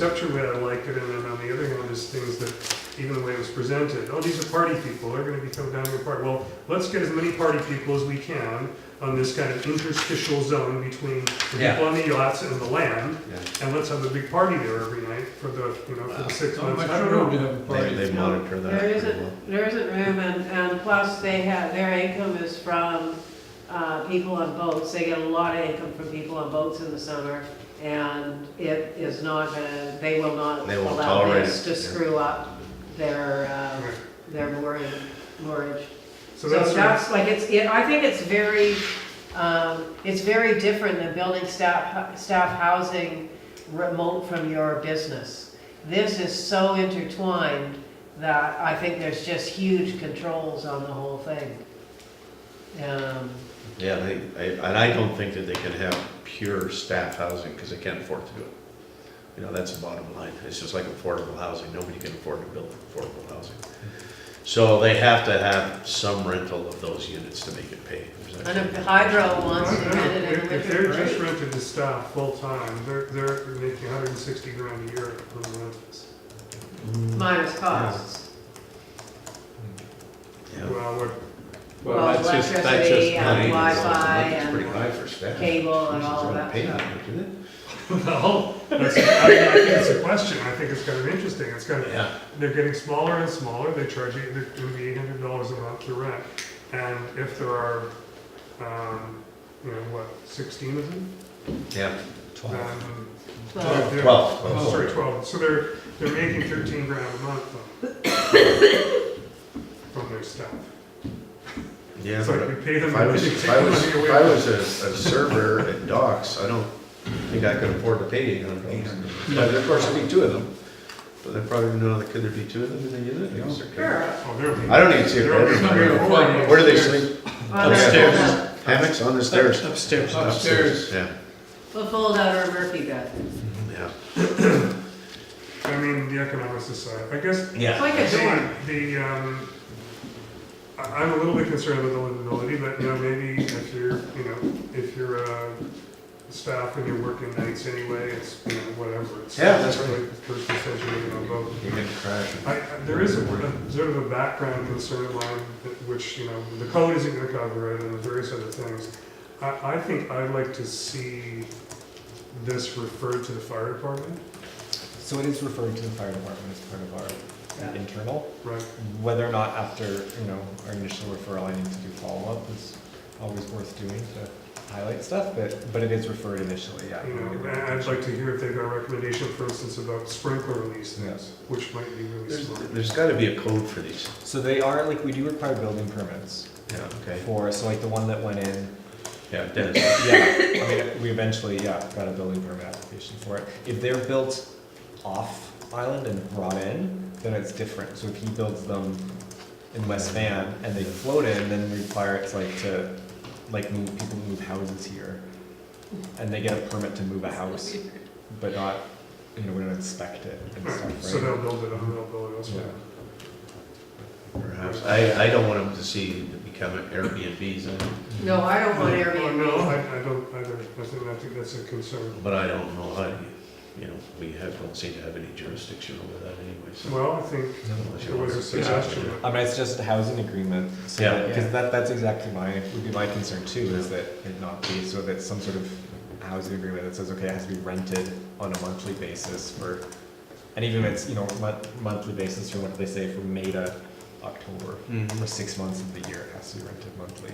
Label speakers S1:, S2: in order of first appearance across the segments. S1: structure way I liked it, and then on the other hand, is things that, even the way it was presented, oh, these are party people, they're gonna become dominant party. Well, let's get as many party people as we can on this kind of interstitial zone between the
S2: Yeah.
S1: people on the yachts and the land,
S2: Yeah.
S1: and let's have a big party there every night for the, you know, for the six
S3: Not
S1: months.
S3: much
S1: I don't
S3: room to
S1: know.
S3: have a
S4: They,
S3: party.
S4: they monitor that
S5: There
S4: pretty well.
S5: isn't, there isn't room, and, and plus they have, their income is from, uh, people on boats. They get a lot of income from people on boats in the summer, and it is not gonna, they will not
S4: They won't
S5: allow
S4: tolerate
S5: this
S4: it,
S5: to
S4: yeah.
S5: screw up their, uh,
S1: Right.
S5: their mooring, moorage.
S1: So
S5: So
S1: that's, sort of-
S5: that's like, it's, it- I think it's very, um, it's very different than building staff, staff housing remote from your business. This is so intertwined that I think there's just huge controls on the whole thing. Um,
S4: Yeah, I think, I- and I don't think that they can have pure staff housing, because they can't afford to do it. You know, that's the bottom line, it's just like affordable housing, nobody can afford to build affordable housing. So they have to have some rental of those units to make it pay. There's
S5: And if
S4: actually-
S5: Hydro
S1: I
S5: wants to
S1: don't
S5: rent
S1: know,
S5: it in
S1: if
S5: the
S1: if they're
S5: winter,
S1: just
S5: great.
S1: rented to staff full-time, they're, they're making hundred and sixty grand a year on the rentals.
S5: minus costs.
S4: Yeah.
S1: Well, what,
S5: Well, electricity and
S4: money.
S5: Wi-Fi
S4: It's pretty
S5: and
S4: high for staff.
S5: cable and
S4: Jesus, they're
S5: all of
S4: not
S5: that
S4: paying
S5: stuff.
S4: that much, is it?
S1: Well, that's, I, I think it's a question. I think it's kind of interesting. It's kind of,
S4: Yeah,
S1: they're getting smaller and smaller. They charge you, they're going to be eight hundred dollars a month to rent. And if there are, um, you know, what, sixteen of them?
S4: yeah,
S1: Um,
S5: Well,
S1: they're-
S4: twelve.
S1: oh, Sorry, twelve. So they're, they're making thirteen grand a month from, from their staff.
S4: Yeah,
S1: It's
S4: but-
S1: like we pay them
S4: If I
S1: and
S4: was,
S1: they take
S4: if
S1: the
S4: I was,
S1: money
S4: if I
S1: away.
S4: was a, a server at docks, I don't think I could afford to pay eight hundred dollars. But of course, there'd be two of them, but I probably don't know, that- could there be two of them in a unit? I guess there could.
S5: Sure.
S1: Oh, they're-
S4: I don't even see a
S1: they're
S4: bedroom. I
S1: already-
S4: don't know. Where do they sleep?
S5: Well, there's
S4: Upstairs.
S5: a-
S4: Hammocks on the stairs?
S3: Upstairs. Upstairs.
S4: Yeah,
S5: A fold out or a Murphy bed.
S4: yeah.
S1: I mean, the economics aside, I guess
S5: It's
S2: Yeah.
S5: like a dorm.
S1: The, the, um, I- I'm a little bit concerned with the livability, but, you know, maybe if you're, you know, if you're, uh, staff and you're working nights anyway, it's, you know, whatever. It's-
S4: Yeah, that's right.
S1: like First and second, you know, both.
S4: You can crash.
S1: I, I- there is a, a sort of a background concern of mine, that- which, you know, the code isn't gonna cover it and various other things. I, I think I'd like to see this referred to the fire department,
S6: So it is referred to the fire department as part of our
S5: Yeah.
S6: internal.
S1: right?
S6: Whether or not after, you know, our initial referral, I need to do follow-up is always worth doing to highlight stuff, but, but it is referred initially, yeah.
S1: You know, and I'd like to hear if they've got a recommendation, for instance, about sprinkler release things, which might be really
S4: There's,
S1: smart.
S4: there's gotta be a code for these.
S6: So they are, like, we do require building permits
S4: Yeah, okay.
S6: for, so like the one that went in,
S4: Yeah, Dennis.
S6: yeah, I mean, we eventually, yeah, got a building permit application for it. If they're built off island and brought in, then it's different. So if he builds them in West Van and they float in, then require it's like to, like move, people move houses here. And they get a permit to move a house, but not, you know, we don't inspect it and
S1: Right,
S6: stuff,
S1: So
S6: right?
S1: they'll build it on, they'll build it elsewhere.
S4: Perhaps. I, I don't want them to see it become an Airbnb's, I don't-
S5: No, I don't want
S1: Oh, No,
S5: Airbnb.
S1: I, I don't either, I think, I think that's a concern.
S4: but I don't know how, you- you know, we have, don't seem to have any jurisdiction over that anyway, so.
S1: Well, I think
S4: Unless you
S1: there was a
S4: want to-
S1: suggestion,
S6: I mean, it's just a housing agreement, so,
S4: Yeah.
S6: because that, that's exactly my, would be my concern too, is that it not be, so that some sort of housing agreement that says, okay, it has to be rented on a monthly basis for, and even if it's, you know, mon- monthly basis from what they say, from May to October,
S4: Mhm.
S6: for six months of the year, it has to be rented monthly.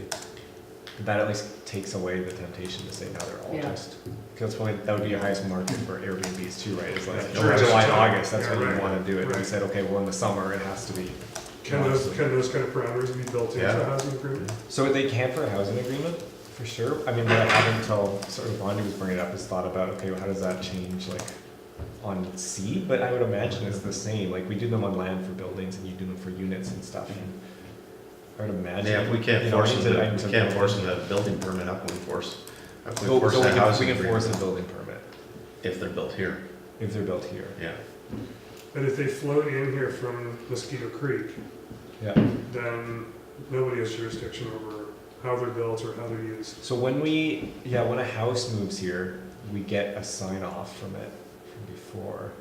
S6: That at least takes away the temptation to say, now they're all
S5: Yeah.
S6: just, because probably, that would be your highest market for Airbnbs too, right? It's like,
S1: Yeah, sure.
S6: July, and August, that's
S1: Yeah,
S6: when
S1: right,
S6: you wanna do it, and we
S1: right.
S6: said, okay, well, in the summer, it has to be
S1: can those, can those kind of parameters be built into
S4: Yeah.
S1: the housing agreement?
S6: so would they camp for a housing agreement, for sure? I mean, what I haven't until sort of Bondi was bringing it up is thought about, okay, well, how does that change, like, on sea? But I would imagine it's the same, like, we do them on land for buildings and you do them for units and stuff. and I would imagine.
S4: Yeah, if we
S6: you
S4: can't
S6: know, I
S4: force
S6: need
S4: them,
S6: to- I
S4: to-
S6: need to-
S4: we can't force them to have a building permit, how can we force? How can we
S6: Well,
S4: force
S6: so we
S4: a
S6: can, we
S4: housing
S6: can force a
S4: agreement
S6: building permit
S4: if they're built here?
S6: if they're built here,
S4: Yeah.
S1: But if they float in here from Mosquito Creek,
S6: yeah.
S1: then nobody has jurisdiction over how they're built or how they're used.
S6: So when we, yeah, when a house moves here, we get a sign off from it from before.